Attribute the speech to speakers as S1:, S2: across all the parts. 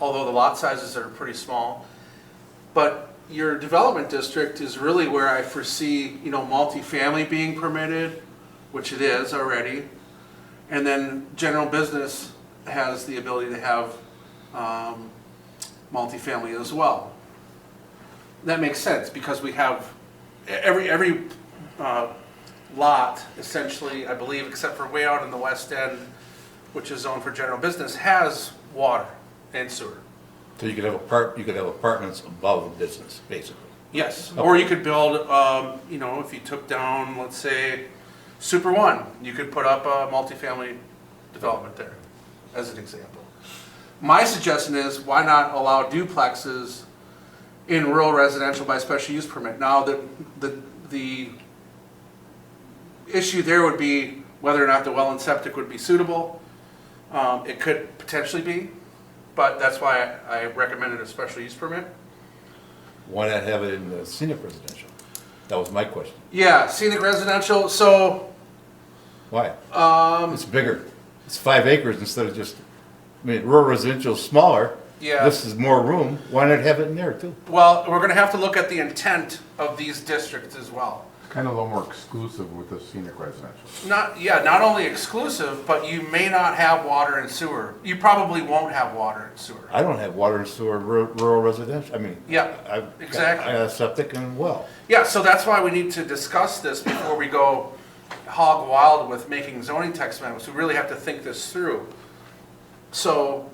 S1: although the lot sizes are pretty small. But your development district is really where I foresee, you know, multifamily being permitted, which it is already. And then general business has the ability to have um, multifamily as well. That makes sense because we have every, every uh, lot essentially, I believe, except for way out in the west end, which is zoned for general business, has water and sewer.
S2: So you could have apart, you could have apartments above business, basically.
S1: Yes, or you could build, um, you know, if you took down, let's say, Super One, you could put up a multifamily development there, as an example. My suggestion is, why not allow duplexes in rural residential by special use permit? Now, the, the, the issue there would be whether or not the well and septic would be suitable. Um, it could potentially be, but that's why I I recommended a special use permit.
S2: Why not have it in the scenic residential? That was my question.
S1: Yeah, scenic residential, so,
S2: Why? Um. It's bigger. It's five acres instead of just, I mean, rural residential's smaller.
S1: Yeah.
S2: This is more room. Why not have it in there too?
S1: well, we're gonna have to look at the intent of these districts as well.
S3: Kind of a little more exclusive with the scenic residential.
S1: Not, yeah, not only exclusive, but you may not have water and sewer. You probably won't have water and sewer.
S2: I don't have water and sewer in ru- rural residential, I mean.
S1: Yeah,
S2: I've got-
S1: exactly.
S2: I have septic and well.
S1: Yeah, so that's why we need to discuss this before we go hog wild with making zoning text amendments. We really have to think this through. So,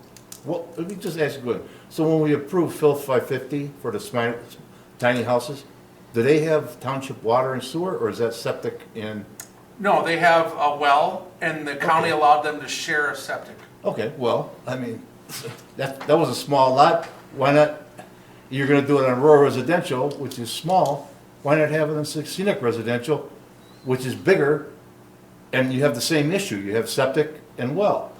S2: Well, let me just ask you, one. so when we approved Phil five fifty for the smi- tiny houses, do they have township water and sewer, or is that septic in?
S1: no, they have a well, and the county allowed them to share a septic.
S2: Okay, well, I mean, that, that was a small lot, why not, you're gonna do it on rural residential, which is small, why not have it on scenic residential, which is bigger, and you have the same issue, you have septic and well.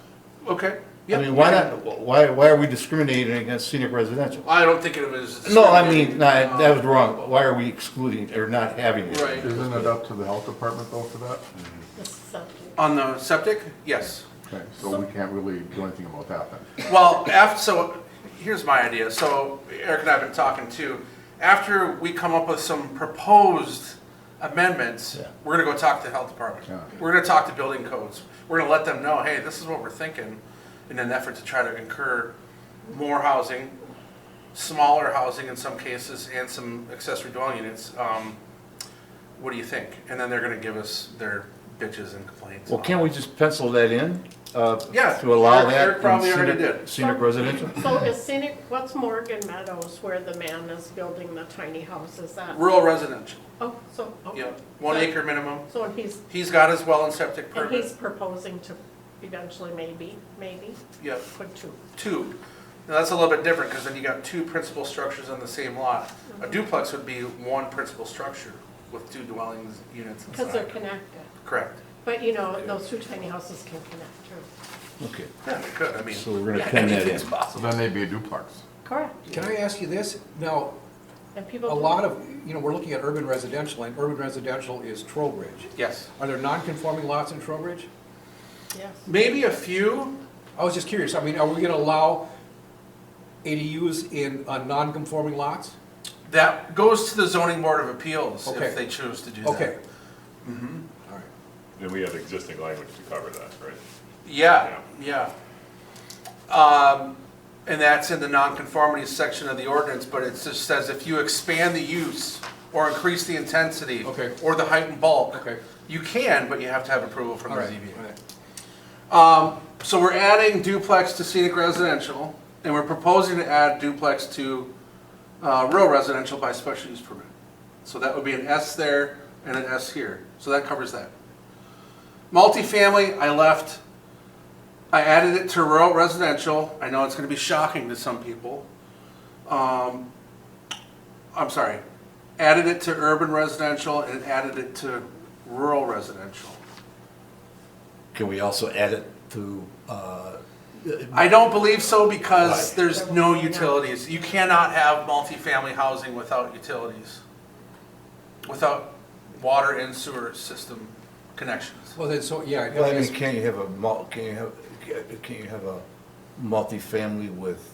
S1: Okay?
S2: I
S1: yeah.
S2: mean, why not, why, why are we discriminating against scenic residential?
S1: I don't think it was.
S2: No, I mean, no, I- that was wrong. Why are we excluding or not having it?
S1: Right.
S3: Isn't it up to the health department though for that?
S1: On the septic? Yes.
S3: Okay, so we can't really do anything about that then.
S1: Well, af so here's my idea. So Eric and I have been talking too. After we come up with some proposed amendments,
S2: Yeah.
S1: we're gonna go talk to the health department.
S3: Yeah.
S1: We're gonna talk to building codes. We're gonna let them know, hey, this is what we're thinking in an effort to try to incur more housing, smaller housing in some cases, and some accessory dwelling units. Um, what do you think? And then they're gonna give us their bitches and complaints.
S2: Well, can't we just pencil that in? uh,
S1: Yeah,
S2: To allow
S1: Eric-
S2: that?
S1: Eric
S2: in
S1: probably already
S2: scenic-
S1: did.
S2: Scenic residential?
S4: So is scenic, what's Morgan Meadows where the man is building the tiny houses at?
S1: Rural residential,
S4: Oh, so, okay.
S1: yeah, one acre minimum.
S4: So and he's,
S1: He's got his well and septic
S4: and he's
S1: permit.
S4: proposing to eventually maybe, maybe
S1: Yep,
S4: put two.
S1: two. Now, that's a little bit different, because then you got two principal structures on the same lot. A
S4: Mm-hmm.
S1: duplex would be one principal structure with two dwellings units
S4: Because they're
S1: inside.
S4: connected.
S1: Correct.
S4: But you know, those two tiny houses can connect too.
S2: Okay,
S1: Yeah, they could, I mean,
S2: so we're gonna pin that in.
S3: So then they'd be a duplex.
S4: Correct.
S5: Can I ask you this? Now,
S4: And
S5: a
S4: people. do-
S5: lot of, you know, we're looking at urban residential, and urban residential is Trowbridge.
S1: yes.
S5: Are there non-conforming lots in Trowbridge?
S4: Yes.
S1: Maybe a few,
S5: I was just curious, I mean, are we gonna allow ADUs in, on non-conforming lots?
S1: that goes to the zoning board of appeals
S5: Okay.
S1: if they choose to do that.
S5: Okay. All right.
S6: And we have existing language to cover that, right?
S1: Yeah, yeah. Um, And that's in the nonconformity section of the ordinance, but it just says if you expand the use or increase the intensity.
S5: Okay.
S1: Or the height and bulk.
S5: Okay.
S1: You can, but you have to have approval from
S5: All
S1: the
S5: right,
S1: ZBA.
S5: all right.
S1: So we're adding duplex to scenic residential, and we're proposing to add duplex to uh, rural residential by special use permit. So that would be an S there and an S here, so that covers that. Multifamily, I left, I added it to rural residential, I know it's gonna be shocking to some people. Um, I'm sorry, added it to urban residential and added it to rural residential.
S2: Can we also add it to, uh,
S1: I don't believe so because
S2: Right.
S1: there's no utilities. You cannot have multifamily housing without utilities. Without water and sewer system connections.
S5: Well, then, so, yeah, I'd
S2: well, I
S5: have
S2: mean,
S5: to ask-
S2: can you have a mul, can you have, can you have a multifamily with